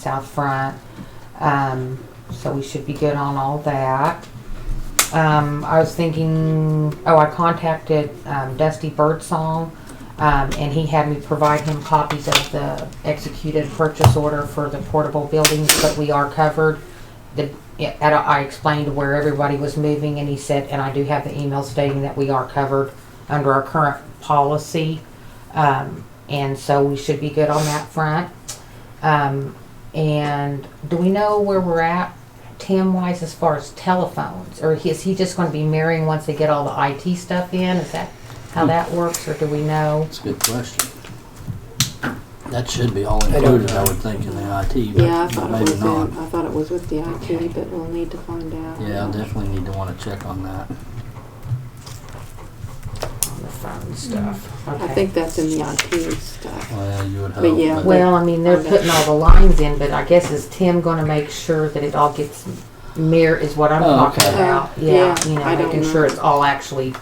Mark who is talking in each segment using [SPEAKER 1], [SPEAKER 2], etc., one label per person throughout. [SPEAKER 1] south front. Um, so we should be good on all that. Um, I was thinking, oh, I contacted um, Dusty Birdsong, um, and he had me provide him copies of the executed purchase order for the portable buildings, but we are covered. The, yeah, and I I explained where everybody was moving, and he said, and I do have the email stating that we are covered under our current policy. Um, and so we should be good on that front. Um, and do we know where we're at Tim wise as far as telephones? Or is he just going to be marrying once they get all the IT stuff in? Is that how that works, or do we know?
[SPEAKER 2] That's a good question. That should be all included, I would think, in the IT,
[SPEAKER 3] Yeah, I
[SPEAKER 2] but
[SPEAKER 3] thought it
[SPEAKER 2] maybe
[SPEAKER 3] was
[SPEAKER 2] not.
[SPEAKER 3] in, I thought it was with the IT, but we'll need to find out.
[SPEAKER 2] Yeah, I definitely need to wanna check on that.
[SPEAKER 1] On the phone stuff.
[SPEAKER 3] I
[SPEAKER 1] Mm-hmm. Okay.
[SPEAKER 3] think that's in the IT stuff.
[SPEAKER 2] Well, you would
[SPEAKER 3] But
[SPEAKER 2] hope,
[SPEAKER 3] yeah,
[SPEAKER 2] but
[SPEAKER 1] Well, I mean, they're putting all the lines in, but I guess is Tim going to make sure that it all gets mirror is what I'm
[SPEAKER 2] Oh,
[SPEAKER 1] talking
[SPEAKER 2] okay.
[SPEAKER 1] about.
[SPEAKER 3] Uh,
[SPEAKER 1] Yeah,
[SPEAKER 3] yeah,
[SPEAKER 1] you know,
[SPEAKER 3] I don't
[SPEAKER 1] making
[SPEAKER 3] know.
[SPEAKER 1] sure it's all actually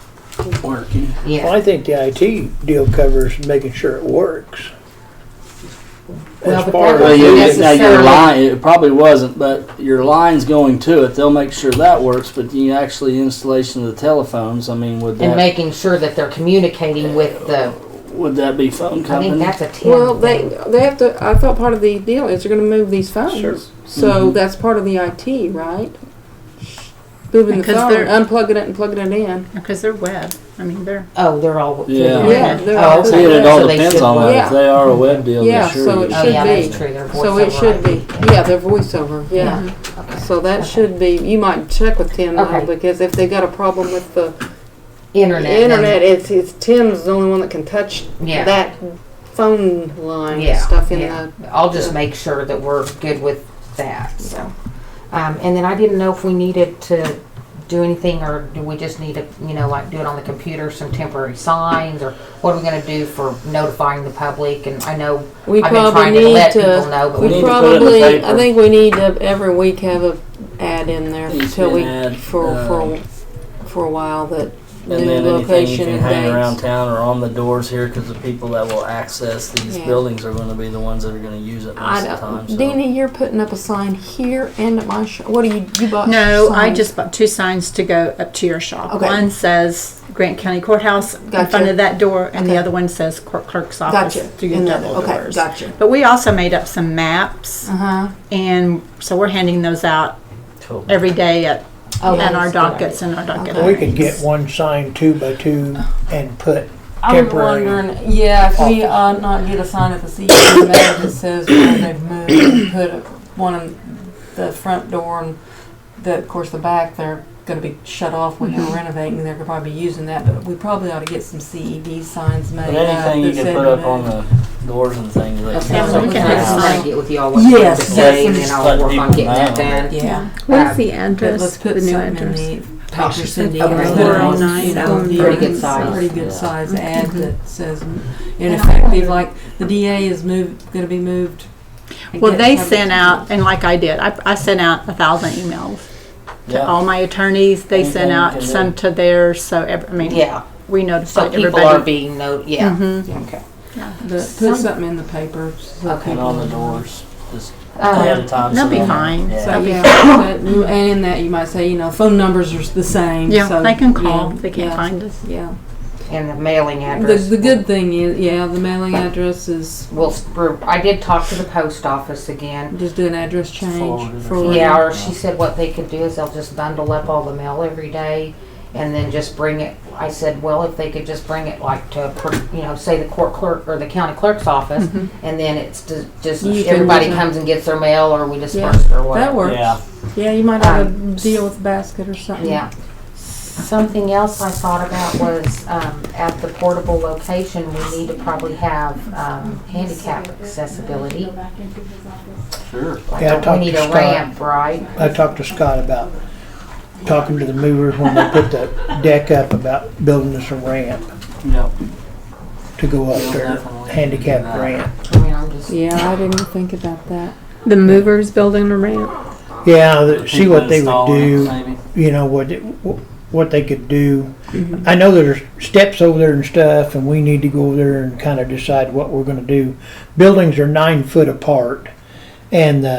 [SPEAKER 2] working.
[SPEAKER 1] yeah.
[SPEAKER 4] Well, I think the IT deal covers making sure it works.
[SPEAKER 1] Well, but
[SPEAKER 4] As far
[SPEAKER 1] that
[SPEAKER 2] Well,
[SPEAKER 1] would
[SPEAKER 4] as,
[SPEAKER 1] be
[SPEAKER 2] you, now your
[SPEAKER 1] necessarily-
[SPEAKER 2] line, it probably wasn't, but your line's going to it, they'll make sure that works, but you actually installation of the telephones, I mean, would
[SPEAKER 1] And
[SPEAKER 2] that,
[SPEAKER 1] making sure that they're communicating with the,
[SPEAKER 2] would that be phone
[SPEAKER 1] I think
[SPEAKER 2] company?
[SPEAKER 1] that's a Tim.
[SPEAKER 3] Well, they,
[SPEAKER 1] thing.
[SPEAKER 3] they have to, I thought part of the deal is they're gonna move these
[SPEAKER 4] Sure.
[SPEAKER 3] phones. So
[SPEAKER 2] Mhm.
[SPEAKER 3] that's part of the IT, right? Moving the
[SPEAKER 5] Because
[SPEAKER 3] phone,
[SPEAKER 5] they're-
[SPEAKER 3] unplugging it and plugging it in.
[SPEAKER 5] Because they're web. I mean, they're.
[SPEAKER 1] Oh, they're all.
[SPEAKER 2] Yeah.
[SPEAKER 3] Yeah, they're
[SPEAKER 1] Oh,
[SPEAKER 3] all-
[SPEAKER 2] See, it
[SPEAKER 1] So
[SPEAKER 2] all
[SPEAKER 1] they
[SPEAKER 2] depends
[SPEAKER 1] should
[SPEAKER 2] on
[SPEAKER 1] work.
[SPEAKER 2] that, if
[SPEAKER 3] Yeah.
[SPEAKER 2] they are a web deal,
[SPEAKER 3] Yeah,
[SPEAKER 2] they sure.
[SPEAKER 3] so
[SPEAKER 2] you
[SPEAKER 1] Oh,
[SPEAKER 3] it
[SPEAKER 2] should.
[SPEAKER 3] should-
[SPEAKER 1] yeah,
[SPEAKER 3] be.
[SPEAKER 1] that's true. They're
[SPEAKER 3] So it
[SPEAKER 1] voiceover
[SPEAKER 3] should be,
[SPEAKER 1] IP.
[SPEAKER 3] yeah, their voiceover, yeah.
[SPEAKER 5] Mm-hmm.
[SPEAKER 1] Okay.
[SPEAKER 3] So that should be, you might check with Tim
[SPEAKER 1] Okay.
[SPEAKER 3] though, because if they got a problem with the
[SPEAKER 1] Internet. then-
[SPEAKER 3] internet, it's, it's Tim's the only one that can touch
[SPEAKER 1] Yeah.
[SPEAKER 3] that phone line
[SPEAKER 1] Yeah,
[SPEAKER 3] and stuff in
[SPEAKER 1] yeah.
[SPEAKER 3] the
[SPEAKER 1] I'll just make sure that we're good with that, so. Um, and then I didn't know if we needed to do anything, or do we just need to, you know, like do it on the computer, some temporary signs, or what are we gonna do for notifying the public? And I know
[SPEAKER 3] We
[SPEAKER 1] I've been
[SPEAKER 3] probably
[SPEAKER 1] trying to
[SPEAKER 3] need
[SPEAKER 1] let people
[SPEAKER 3] to.
[SPEAKER 1] know, but
[SPEAKER 2] We
[SPEAKER 1] we
[SPEAKER 2] need
[SPEAKER 3] We
[SPEAKER 2] to put it in the
[SPEAKER 3] probably, I
[SPEAKER 2] paper.
[SPEAKER 3] think we need to every week have a ad in there
[SPEAKER 2] Needs to
[SPEAKER 3] till
[SPEAKER 2] be
[SPEAKER 3] we,
[SPEAKER 2] an ad,
[SPEAKER 3] for, for,
[SPEAKER 2] um,
[SPEAKER 3] for a while that
[SPEAKER 2] And
[SPEAKER 3] new
[SPEAKER 2] then anything you
[SPEAKER 3] location
[SPEAKER 2] can
[SPEAKER 3] and
[SPEAKER 2] hang around
[SPEAKER 3] dates.
[SPEAKER 2] town or on the doors here, because the people that will access these
[SPEAKER 3] Yeah.
[SPEAKER 2] buildings are going to be the ones that are going to use it
[SPEAKER 3] I
[SPEAKER 2] most of the
[SPEAKER 3] don't,
[SPEAKER 2] time. So.
[SPEAKER 3] Deanie, you're putting up a sign here and at my shop. What do you, you bought?
[SPEAKER 5] No, I
[SPEAKER 3] signs?
[SPEAKER 5] just bought two signs to go up to your shop.
[SPEAKER 3] Okay.
[SPEAKER 5] One says Grant County Courthouse in
[SPEAKER 3] Gotcha.
[SPEAKER 5] front of that door, and the
[SPEAKER 3] Okay.
[SPEAKER 5] other one says Court Clerk's Office
[SPEAKER 3] Gotcha.
[SPEAKER 5] through your
[SPEAKER 3] In the-
[SPEAKER 5] double
[SPEAKER 3] Okay,
[SPEAKER 5] doors.
[SPEAKER 3] gotcha.
[SPEAKER 5] But we also made up some maps,
[SPEAKER 3] Uh-huh.
[SPEAKER 5] and so we're handing those out
[SPEAKER 2] Cool.
[SPEAKER 5] every day at,
[SPEAKER 1] Oh,
[SPEAKER 5] at
[SPEAKER 1] that's
[SPEAKER 5] our
[SPEAKER 1] a good idea.
[SPEAKER 5] dockets and our docket.
[SPEAKER 3] Okay.
[SPEAKER 4] we could
[SPEAKER 5] meetings.
[SPEAKER 4] get one sign two by two and put
[SPEAKER 3] I'm
[SPEAKER 4] Temporary.
[SPEAKER 3] wondering, yeah, if we uh, not get a sign at the CEO that says where they've moved, and put a- one in the front door and the, of course, the back, they're gonna be shut off when they're renovating, they're gonna probably be using that, but we probably ought to get some CED signs made.
[SPEAKER 2] But
[SPEAKER 3] up
[SPEAKER 2] anything you
[SPEAKER 3] that
[SPEAKER 2] can
[SPEAKER 3] said
[SPEAKER 2] put up on
[SPEAKER 3] removed.
[SPEAKER 2] the doors and things like
[SPEAKER 1] Okay,
[SPEAKER 5] Yeah,
[SPEAKER 1] so
[SPEAKER 2] that.
[SPEAKER 5] we
[SPEAKER 1] we
[SPEAKER 5] can
[SPEAKER 1] can
[SPEAKER 5] have
[SPEAKER 1] just
[SPEAKER 5] some.
[SPEAKER 1] try to get with y'all what you
[SPEAKER 3] Yes,
[SPEAKER 1] can
[SPEAKER 3] yes.
[SPEAKER 1] say, and then I'll
[SPEAKER 2] Let
[SPEAKER 1] work on
[SPEAKER 2] people
[SPEAKER 1] getting that
[SPEAKER 2] know.
[SPEAKER 1] done.
[SPEAKER 3] Yeah,
[SPEAKER 5] Where's the address?
[SPEAKER 3] but let's put
[SPEAKER 5] the new
[SPEAKER 3] something in
[SPEAKER 5] address.
[SPEAKER 3] the paper, Cindy.
[SPEAKER 1] Okay.
[SPEAKER 3] or
[SPEAKER 1] Four
[SPEAKER 3] put it
[SPEAKER 1] oh
[SPEAKER 3] on,
[SPEAKER 5] nine,
[SPEAKER 3] you know,
[SPEAKER 5] four oh
[SPEAKER 3] the
[SPEAKER 1] Pretty good size.
[SPEAKER 3] Pretty good
[SPEAKER 2] Yeah.
[SPEAKER 3] size ad that says ineffective, like, the DA is moved, gonna be moved.
[SPEAKER 5] Well, they
[SPEAKER 3] Again,
[SPEAKER 5] sent out, and like I did, I, I sent out a thousand emails. to
[SPEAKER 2] Yeah.
[SPEAKER 5] all my attorneys. They
[SPEAKER 2] Anything
[SPEAKER 5] sent
[SPEAKER 2] you
[SPEAKER 5] out
[SPEAKER 2] can
[SPEAKER 5] some to theirs, so every, I mean,
[SPEAKER 1] Yeah,
[SPEAKER 5] we
[SPEAKER 1] so
[SPEAKER 5] notified
[SPEAKER 1] people are Mm-hmm.
[SPEAKER 5] everybody.
[SPEAKER 1] being no, yeah.
[SPEAKER 3] Mm-hmm.
[SPEAKER 5] Mhm.
[SPEAKER 1] Okay.
[SPEAKER 3] But
[SPEAKER 1] Some-
[SPEAKER 3] put something in the paper. so
[SPEAKER 1] Okay.
[SPEAKER 2] And
[SPEAKER 3] people
[SPEAKER 2] on the
[SPEAKER 3] know.
[SPEAKER 2] doors. Just ahead
[SPEAKER 1] Um,
[SPEAKER 2] of time.
[SPEAKER 5] They'll
[SPEAKER 2] so
[SPEAKER 5] be
[SPEAKER 2] they'll-
[SPEAKER 5] fine.
[SPEAKER 2] Yeah.
[SPEAKER 3] So
[SPEAKER 5] Okay.
[SPEAKER 3] yeah, but- and in that you might say, you know, phone numbers are the same.
[SPEAKER 5] Yeah,
[SPEAKER 3] so,
[SPEAKER 5] they can
[SPEAKER 3] you
[SPEAKER 5] call.
[SPEAKER 3] know,
[SPEAKER 5] They can't
[SPEAKER 3] yeah,
[SPEAKER 5] find us.
[SPEAKER 3] Yeah.
[SPEAKER 1] And the mailing
[SPEAKER 3] The,
[SPEAKER 1] address.
[SPEAKER 3] the good thing is, yeah, the mailing address is
[SPEAKER 1] Well, we're- I did talk to the post office again.
[SPEAKER 3] just do an address change.
[SPEAKER 2] Forward it or
[SPEAKER 3] forward
[SPEAKER 1] Yeah,
[SPEAKER 3] it.
[SPEAKER 1] or she said what they could do is they'll just bundle up all the mail every day and then just bring it. I said, well, if they could just bring it like to, a per- you know, say the court clerk or the county clerk's office, and then it's ju- just,
[SPEAKER 3] Mm-hmm. You can
[SPEAKER 1] everybody
[SPEAKER 3] use it.
[SPEAKER 1] comes and gets their mail or we
[SPEAKER 3] Yeah,
[SPEAKER 1] disperse it or
[SPEAKER 3] That
[SPEAKER 1] whatever.
[SPEAKER 3] works.
[SPEAKER 2] Yeah.
[SPEAKER 3] Yeah. you might have a deal with a basket or something.
[SPEAKER 1] Yeah. Something else I thought about was um, at the portable location, we need to probably have um, handicap accessibility.
[SPEAKER 2] Sure.
[SPEAKER 4] Yeah, I
[SPEAKER 1] We
[SPEAKER 4] talked
[SPEAKER 1] need
[SPEAKER 4] to
[SPEAKER 1] a
[SPEAKER 4] Scott.
[SPEAKER 1] ramp, right?
[SPEAKER 4] I talked to Scott about talking to the movers when they put the deck up about building us a ramp
[SPEAKER 2] Yep.
[SPEAKER 4] to go up there,
[SPEAKER 2] Definitely.
[SPEAKER 4] handicap ramp.
[SPEAKER 1] I mean, I'm just.
[SPEAKER 3] Yeah, I didn't think about that.
[SPEAKER 5] The movers building a ramp.
[SPEAKER 4] Yeah, the- see
[SPEAKER 2] People
[SPEAKER 4] what they would
[SPEAKER 2] installing it,
[SPEAKER 4] do.
[SPEAKER 2] Maybe.
[SPEAKER 4] you know what it- wh- what they could do. I know there's steps over there and stuff, and we need to go over there and kind of decide what we're going to do. Buildings are nine foot apart, And, uh,